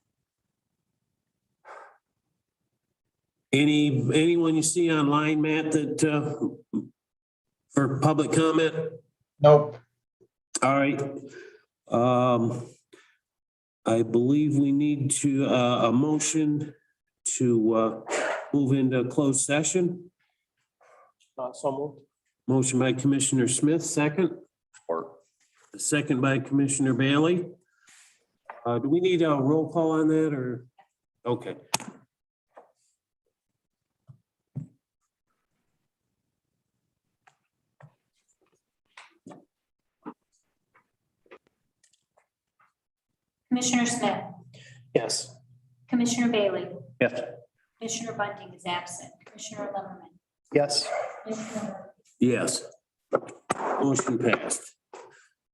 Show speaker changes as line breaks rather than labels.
Any, anyone you see online, Matt, that, uh, for public comment?
Nope.
All right. Um, I believe we need to, uh, a motion to, uh, move into closed session.
Uh, so moved.
Motion by Commissioner Smith, second.
Or.
Second by Commissioner Bailey. Uh, do we need a roll call on that or? Okay.
Commissioner Smith,
Yes.
Commissioner Bailey,
Yes.
Commissioner Bunting is absent, Commissioner Lumberman.
Yes.
Commissioner Murphy,
Yes. Motion passed.